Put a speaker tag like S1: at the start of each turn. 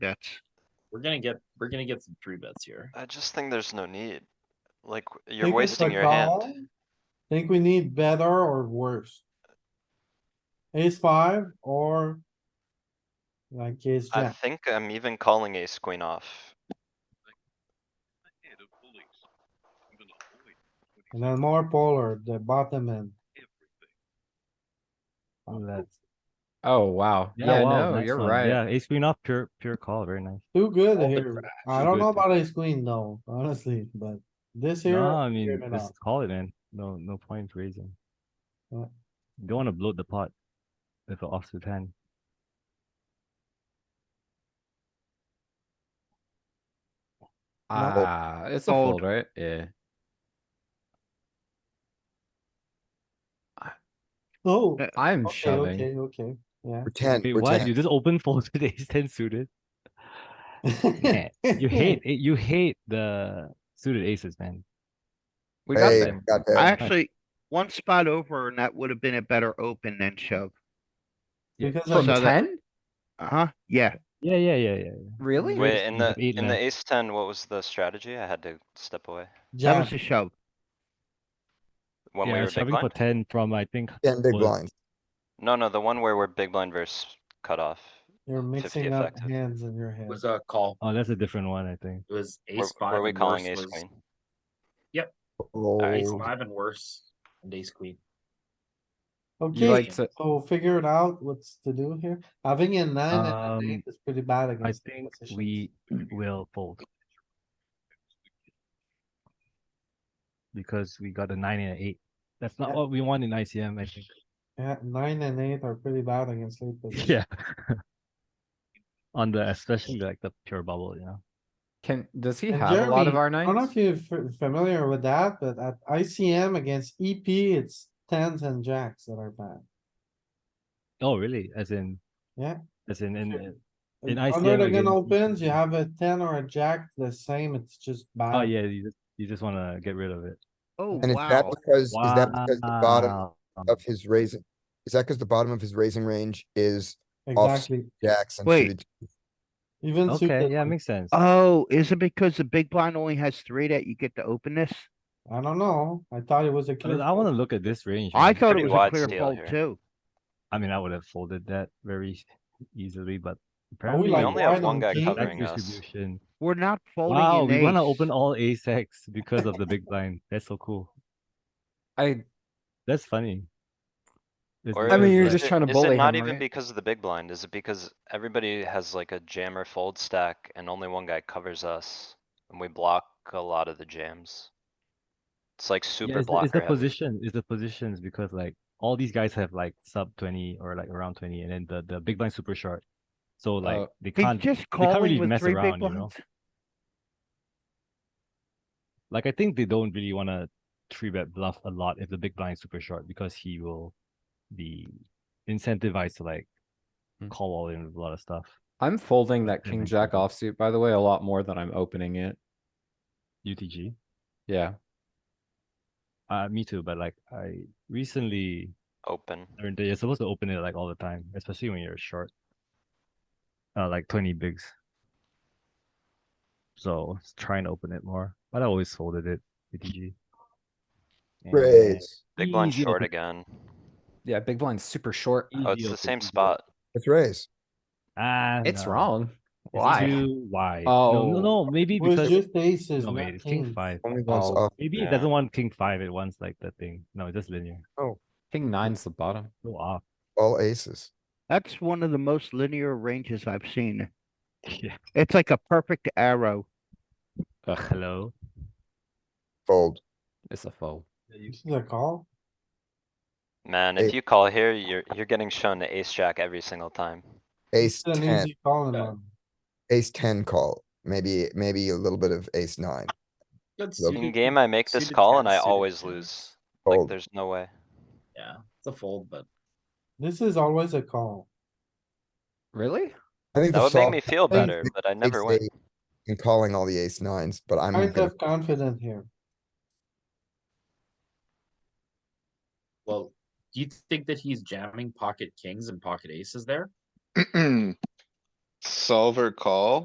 S1: That's,
S2: We're gonna get, we're gonna get some three bets here.
S3: I just think there's no need. Like, you're
S4: Think it's a
S3: wasting your hand.
S4: call. Think we need better or worse? Ace five or like ace
S3: I
S4: jack.
S3: think I'm even calling ace queen off.
S4: And then more polar, the bottom end. On that.
S5: Oh, wow.
S6: Yeah,
S5: Yeah,
S6: wow,
S5: no,
S6: nice
S5: you're
S6: one.
S5: right.
S6: Yeah, ace queen off, pure, pure call, very nice.
S4: Too good
S5: All the
S4: here. I
S5: too
S4: don't know
S5: good.
S4: about ace queen though, honestly, but this here.
S6: No, I mean,
S4: figured it out.
S6: just call it, man. No, no point raising.
S4: Yeah.
S6: You Don't wanna bloat the pot with an offsuit hand.
S5: Ah, it's a
S1: Fold.
S5: fold, right? Yeah.
S4: Oh,
S1: Uh,
S5: I'm
S4: okay,
S5: shoving.
S4: okay, okay, yeah.
S7: Pretend,
S6: Wait, what? You
S7: pretend.
S6: just open folded ace ten suited? Man, You hate, eh, you hate the suited aces, man.
S5: We got
S7: Hey,
S5: there.
S7: got that.
S1: I actually, one spot over and that would have been a better open than shove.
S4: Because
S5: From
S4: of
S1: So that-
S5: ten?
S1: Uh-huh, yeah,
S6: Yeah, yeah, yeah, yeah.
S5: Really?
S6: Wait,
S3: Wait, in the,
S6: eight
S3: in the
S6: left.
S3: ace ten, what was the strategy? I had to step away.
S1: that
S4: jack,
S1: was a shove.
S3: When we
S6: Yeah,
S3: were big
S6: shoving for
S3: blind?
S6: ten from, I think,
S7: Ten big
S6: was-
S7: blinds.
S3: No, no, the one where we're big blind versus cutoff.
S4: you're
S3: 50
S4: mixing up
S3: effective.
S4: hands in your head.
S2: Was a call.
S6: oh, that's a different one, I think.
S2: It was
S3: Were,
S2: ace five.
S3: were we
S2: and
S3: calling
S2: worse
S3: ace
S2: was-
S3: queen?
S2: Ace
S7: Oh,
S2: five and worse, and ace queen.
S4: Okay,
S5: like to-
S4: so figure it out what's to do here. Having a nine and
S6: Um,
S4: an eight is pretty bad
S6: I
S4: against.
S6: think
S4: positions.
S6: we will fold. Because we got a nine and an eight. That's not
S4: Yeah.
S6: what we want in ICM, I think.
S4: Yeah, nine and eight are pretty bad against late positions.
S6: Yeah. On the, especially like the pure bubble, you know?
S5: Can, does he
S4: And
S5: have a lot of
S4: Jeremy,
S5: our
S4: I don't know
S5: nines?
S4: if you're f- familiar with that, but at ICM against EP, it's tens and jacks that are bad.
S6: Oh, really? As in?
S4: Yeah.
S6: As in, in,
S4: Sure.
S6: in-
S4: And
S6: In
S4: Under
S6: ICM
S4: the gun
S6: against E
S4: opens, you
S6: EP.
S4: have a ten or a jack, the same, it's just bad.
S6: oh yeah, you just, you just wanna get rid of it.
S1: Oh,
S7: and is that
S1: wow.
S7: because, is that because the bottom
S6: Wow.
S7: of his raising? Is that because the bottom of his raising range is
S4: Exactly,
S7: Jackson?
S1: Wait.
S4: even
S6: Okay,
S4: suited,
S6: yeah, makes sense.
S1: Oh, is it because the big blind only has three that you get to open this?
S4: I don't know, I thought it was a.
S6: I mean,
S4: clear
S6: I wanna
S4: fold.
S6: look at this range.
S1: I
S6: man.
S1: thought it
S3: Pretty
S1: was
S3: wide
S1: a clear
S3: steal
S1: fold
S3: here.
S1: too.
S6: I mean, I would have folded that very easily, but
S4: Are we
S6: apparently.
S4: like
S3: only have
S4: wide
S3: one
S4: on
S3: guy
S4: king?
S3: covering.
S6: Jack
S3: us.
S6: distribution.
S1: We're not folding
S6: Wow,
S1: an
S6: we wanna
S1: ace.
S6: open all ace X because of the big blind. That's so cool.
S5: I,
S6: That's funny. It's
S3: Or
S5: I mean,
S6: because,
S5: you're
S3: is
S6: like,
S5: just
S3: it-
S5: trying to
S3: Is
S5: bully
S3: it not
S5: him,
S3: even
S5: right?
S3: because of the big blind? Is it because everybody has like a jam or fold stack and only one guy covers us? And we block a lot of the jams. It's like
S6: Yeah,
S3: super
S6: it's, the- it's
S3: blocker
S6: the
S3: heavy.
S6: position, it's the positions because like all these guys have like sub twenty or like around twenty and then the, the big blind super short. So like
S5: Oh.
S6: they
S1: He's
S6: can't,
S1: just
S6: can't really
S1: calling with
S6: mess
S1: three big
S6: around, you know?
S1: blinds.
S6: like I think they don't really wanna three bet bluff a lot if the big blind is super short because he will be incentivized to like
S5: Hmm.
S6: call all in with a lot of stuff.
S5: I'm folding that
S6: Yeah,
S5: king
S6: makes
S5: jack
S6: sense.
S5: offsuit, by the way, a lot more than I'm opening it.
S6: UTG.
S5: Yeah,
S6: Uh, me too, but like I recently
S3: Open.
S6: learned that you're supposed to open it like all the time, especially when you're short. Uh, like 20 bigs. So s- try and open it more, but I always folded it. ATG. And
S7: Raise.
S3: Big blind
S6: easy
S3: short
S6: open-
S3: again.
S5: yeah, big blind's super short.
S3: Oh, it's
S6: easy
S3: the
S6: open,
S3: same
S6: easy
S3: spot.
S7: It's raise.
S6: open. Ah,
S5: It's
S6: no.
S5: wrong.
S6: It's
S5: Why?
S6: too wide. no,
S5: Oh.
S6: no, no, maybe
S4: It was
S6: because
S4: just aces,
S6: no, Oh, wait,
S4: not
S6: it's king
S4: kings.
S6: five.
S7: Only once
S5: Oh.
S7: off.
S6: Maybe
S3: Yeah.
S6: it doesn't want king five. It wants like the thing. No, it's just linear.
S5: King nine's the bottom.
S6: Go off.
S7: all aces.
S1: That's one of the most linear ranges I've seen.
S6: Yeah.
S1: It's like a perfect arrow.
S5: Ugh,
S6: Hello.
S7: Fold.
S5: it's a fold.
S4: This is a call,
S3: Man,
S7: Eight.
S3: if you call here, you're, you're getting shown the ace jack every single time.
S7: Ace
S4: it's an
S7: ten,
S4: easy call in
S5: Yeah.
S4: one.
S7: ace ten call, maybe, maybe a little bit of ace nine.
S2: Good
S7: Love-
S2: suited-
S3: In game, I make this
S2: suited
S3: call and
S2: tens,
S3: I
S2: suited
S3: always
S2: tens.
S3: lose. Like,
S7: Fold.
S3: there's no way.
S2: Yeah, it's a fold, but
S4: This is always a call.
S5: Really?
S7: I think
S3: That
S7: the
S3: would make
S7: soft
S3: me feel
S7: think
S3: better,
S7: it
S3: but I
S7: ace
S3: never win.
S7: eight and calling all the ace nines, but I'm
S4: Kind
S7: gonna,
S4: of confident here.
S2: well, do you think that he's jamming pocket kings and pocket aces there?
S8: Solver call.